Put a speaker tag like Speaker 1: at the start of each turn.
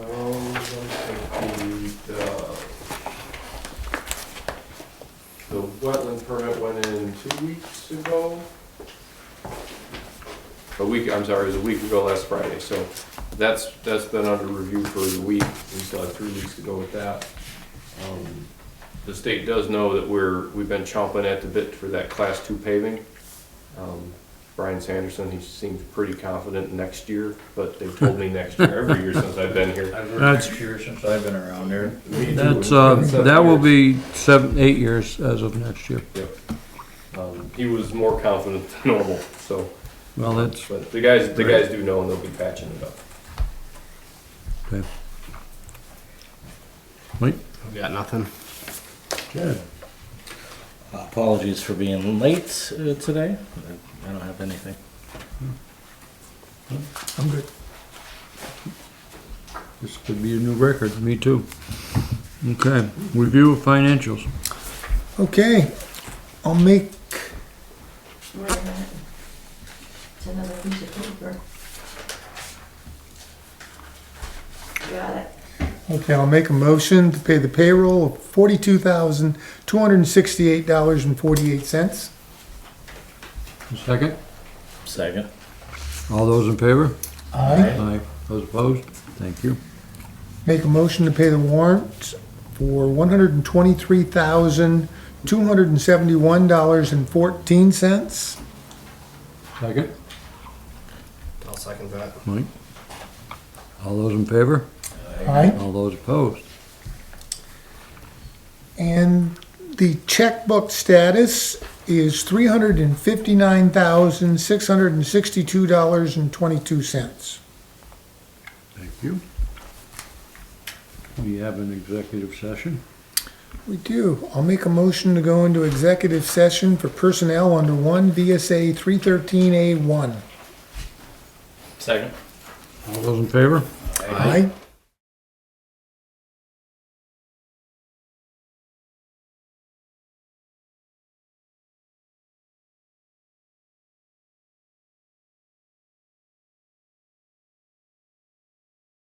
Speaker 1: the, the, the wetland permit went in two weeks ago. A week, I'm sorry, it was a week ago last Friday, so that's, that's been under review for the week, we still have three weeks to go with that. Um, The state does know that we're, we've been chomping at the bit for that class two paving. Um, Brian Sanderson, he seems pretty confident next year, but they've told me next year, every year since I've been here.
Speaker 2: I've
Speaker 3: That's-
Speaker 2: worked next year since I've been around there.
Speaker 1: Me too.
Speaker 3: That's, uh,
Speaker 1: It's been
Speaker 3: that will
Speaker 1: seven years.
Speaker 3: be seven, eight years as of next year.
Speaker 1: Yep. Um, He was more confident than normal, so,
Speaker 3: Well, that's,
Speaker 1: but the guys, the guys do know and they'll be patching it up.
Speaker 4: Got nothing.
Speaker 5: Good. Apologies for being late uh, today. I don't have anything.
Speaker 3: I'm good. This could be a new record, me too. Okay, review of financials.
Speaker 6: Okay, I'll make,
Speaker 7: Wait a minute. It's another piece of paper. Got it.
Speaker 6: okay, I'll make a motion to pay the payroll of forty-two thousand, two hundred and sixty-eight dollars and forty-eight cents.
Speaker 3: Second,
Speaker 5: Second.
Speaker 3: all those in favor?
Speaker 6: Aye.
Speaker 3: Aye. Those opposed? Thank you.
Speaker 6: Make a motion to pay the warrant for one hundred and twenty-three thousand, two hundred and seventy-one dollars and fourteen cents.
Speaker 3: Second,
Speaker 4: I'll second that.
Speaker 3: Mike. All those in favor?
Speaker 6: Aye.
Speaker 3: All those opposed?
Speaker 6: And the checkbook status is three hundred and fifty-nine thousand, six hundred and sixty-two dollars and twenty-two cents.
Speaker 3: Thank you. We have an executive session.
Speaker 6: We do. I'll make a motion to go into executive session for personnel under one VSA three thirteen A one.
Speaker 5: Second.
Speaker 3: All those in favor?
Speaker 6: Aye.